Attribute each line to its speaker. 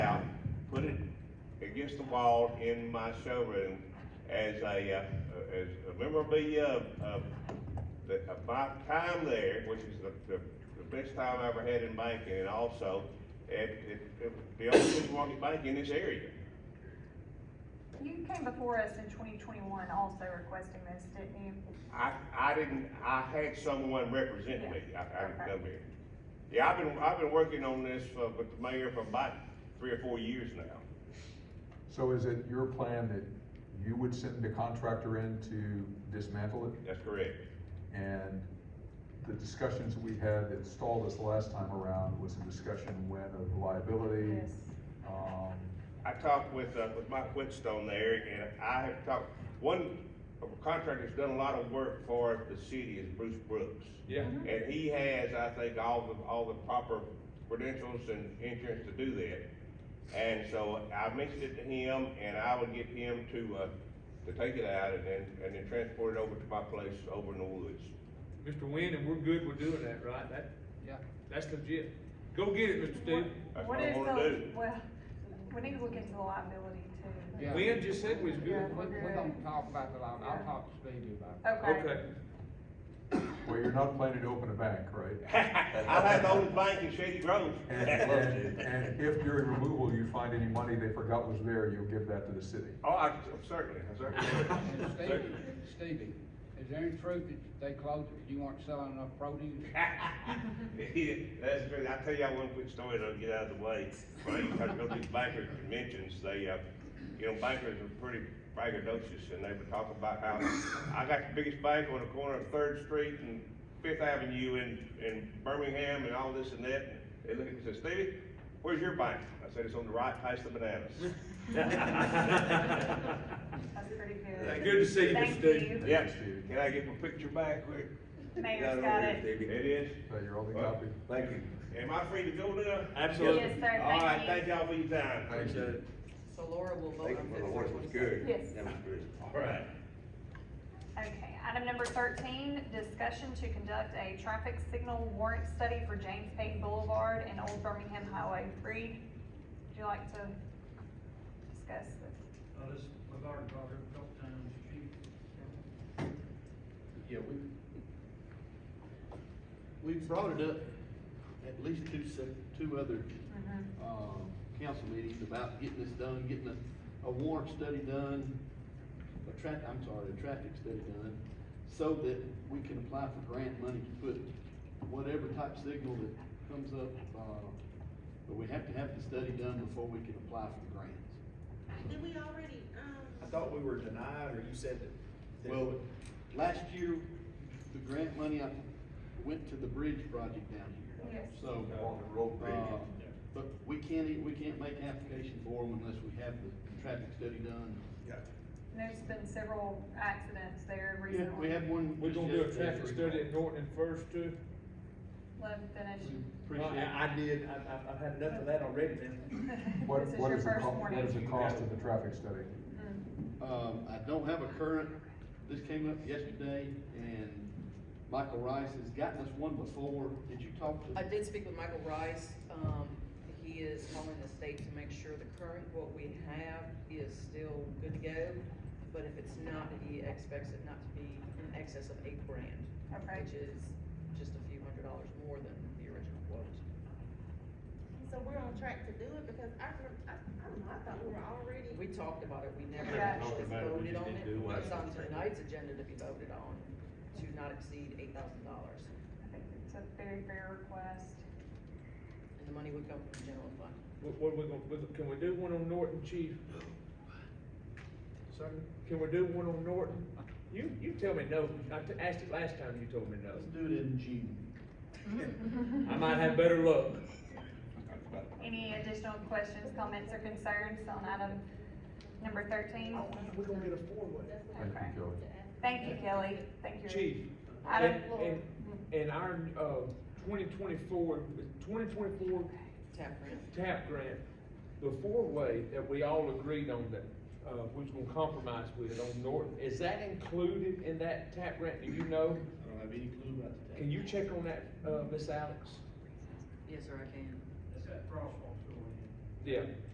Speaker 1: against the wall in my showroom as a, uh, as a memorabilia of, of the, of my time there, which is the, the, the best time I ever had in banking, and also, it, it, it- the only Milwaukee bank in this area.
Speaker 2: You came before us in twenty twenty-one also requesting this, didn't you?
Speaker 1: I, I didn't, I had someone represent me, I, I didn't come here. Yeah, I've been, I've been working on this for, with the mayor for about three or four years now.
Speaker 3: So is it your plan that you would send the contractor in to dismantle it?
Speaker 1: That's correct.
Speaker 3: And the discussions we had that stalled us last time around was a discussion when of liability.
Speaker 2: Yes.
Speaker 3: Um,
Speaker 1: I talked with, uh, with Mike Whitstone there, and I have talked, one contractor that's done a lot of work for the city is Bruce Brooks.
Speaker 4: Yeah.
Speaker 1: And he has, I think, all the, all the proper credentials and insurance to do that. And so I mentioned it to him, and I would get him to, uh, to take it out and then, and then transport it over to my place over in the woods.
Speaker 4: Mr. Wynn, and we're good with doing that, right? That, yeah, that's legit. Go get it, Mr. Steve.
Speaker 1: That's
Speaker 2: What
Speaker 1: what I
Speaker 2: is
Speaker 1: wanna
Speaker 2: the-
Speaker 1: do.
Speaker 2: Well, we need to look into the liability too.
Speaker 5: Yeah.
Speaker 4: Wynn just said we was
Speaker 5: Yeah,
Speaker 4: good.
Speaker 5: we, we're gonna talk about the loan, I'll talk to Stevie about it.
Speaker 2: Okay.
Speaker 4: Okay.
Speaker 3: Well, you're not planning to open a bank, right?
Speaker 1: I'll have the oldest bank in Shady Grove.
Speaker 3: And, and, and if during removal you find any money they forgot was there, you'll give that to the city.
Speaker 1: Oh, I, certainly, certainly.
Speaker 5: And Stevie, Stevie, is there any truth that they closed it, you weren't selling enough produce?
Speaker 1: Yeah, That's true. I'll tell y'all one quick story that'll get out of the way. When I used to go to these banker conventions, they, uh, you know, bankers are pretty braggadocious and they would talk about how I got the biggest bank on the corner of Third Street and Fifth Avenue in, in Birmingham and all this and that. And They look at me and say, Stevie, where's your bank? I said, it's on the right past the bananas.
Speaker 2: That's pretty
Speaker 4: Good
Speaker 2: good.
Speaker 4: to see you, Mr.
Speaker 2: Thank
Speaker 4: Steve.
Speaker 2: you.
Speaker 1: Yeah, can I get my picture back quick?
Speaker 2: Mayor's got it.
Speaker 1: It is.
Speaker 3: So your only copy.
Speaker 6: Thank you.
Speaker 1: Am I free to go now?
Speaker 4: Absolutely.
Speaker 2: Yes, sir,
Speaker 1: All right,
Speaker 2: thank
Speaker 1: thank
Speaker 2: you.
Speaker 1: y'all for your time.
Speaker 3: Thank you.
Speaker 7: So Laura will vote
Speaker 6: Thank
Speaker 7: on
Speaker 6: you
Speaker 7: this.
Speaker 6: for the horse, it was good.
Speaker 2: Yes.
Speaker 6: That was good.
Speaker 1: All right.
Speaker 2: Okay, item number thirteen, discussion to conduct a traffic signal warrant study for James Payne Boulevard and Old Birmingham Highway three. Would you like to discuss this?
Speaker 8: Uh, this, we've already brought it up a couple times, chief.
Speaker 9: Yeah, we, we brought it up at least two sec, two other, um, council meetings about getting this done, getting a, a warrant study done, a tra- I'm sorry, a traffic study done, so that we can apply for grant money to put whatever type signal that comes up, uh, but we have to have the study done before we can apply for grants.
Speaker 10: Did we already, um?
Speaker 11: I thought we were denied, or you said that. that-
Speaker 9: Well, last year, the grant money I went to the bridge project down here.
Speaker 2: Yes.
Speaker 9: So,
Speaker 3: On the road bridge.
Speaker 9: uh, but we can't, e- we can't make application for them unless we have the traffic study done.
Speaker 11: Yeah.
Speaker 2: There's been several accidents there
Speaker 9: Yeah,
Speaker 2: recently.
Speaker 9: we have one.
Speaker 4: We're gonna do a traffic study at
Speaker 9: at
Speaker 4: Norton and First too.
Speaker 2: Let him finish.
Speaker 9: Appreciate it.
Speaker 4: I did, I, I, I've had enough of that already, man.
Speaker 3: Mm. What,
Speaker 2: This is
Speaker 3: what
Speaker 2: your
Speaker 3: is the,
Speaker 2: first
Speaker 3: co- what is the
Speaker 2: warning.
Speaker 3: cost of the traffic study?
Speaker 2: Mm.
Speaker 9: Um, I don't have a current, this came up yesterday, and Michael Rice has gotten us one before, did you talk to?
Speaker 7: I did speak with Michael Rice, um, he is calling the state to make sure the current, what we have is still good to go. But if it's not, he expects it not to be in excess of eight grand,
Speaker 2: Okay.
Speaker 7: which is just a few hundred dollars more than the original quote.
Speaker 10: So we're on track to do it, because I, rem- I, I don't know, I thought we were already.
Speaker 7: We talked about it, we never
Speaker 2: Yeah.
Speaker 7: actually
Speaker 6: Talked about it, we
Speaker 7: voted
Speaker 6: just
Speaker 7: on
Speaker 6: didn't
Speaker 7: it,
Speaker 6: do what I
Speaker 7: it's on
Speaker 6: was thinking.
Speaker 7: tonight's agenda to be voted on, to not exceed eight thousand dollars.
Speaker 2: I think It's a very fair request.
Speaker 7: And the money would come from the general fund.
Speaker 4: What, what are we gonna, what- can we do one on Norton, chief?
Speaker 11: Second?
Speaker 4: Can we do one on Norton? You, you tell me no, I t- asked it last time, you told me no.
Speaker 9: Let's do it in June.
Speaker 4: I might have better luck.
Speaker 2: Any additional questions, comments, or concerns on item number thirteen?
Speaker 4: We're gonna get a four-way.
Speaker 3: Thank
Speaker 2: Okay.
Speaker 3: you, Kelly.
Speaker 2: Thank you, Kelly. Thank you.
Speaker 4: Chief,
Speaker 2: I
Speaker 4: and,
Speaker 2: don't-
Speaker 4: and, and our, uh, twenty twenty-four, twenty twenty-four
Speaker 7: Tap grant.
Speaker 4: TAP grant, the four-way that we all agreed on that, uh, we was gonna compromise with on Norton, is that included in that TAP grant, do you know?
Speaker 9: I don't have any clue about the.
Speaker 4: Can you check on that, uh, Miss Alex?
Speaker 7: Yes, sir, I can.
Speaker 8: That's that crosswalk going in.
Speaker 4: Yeah.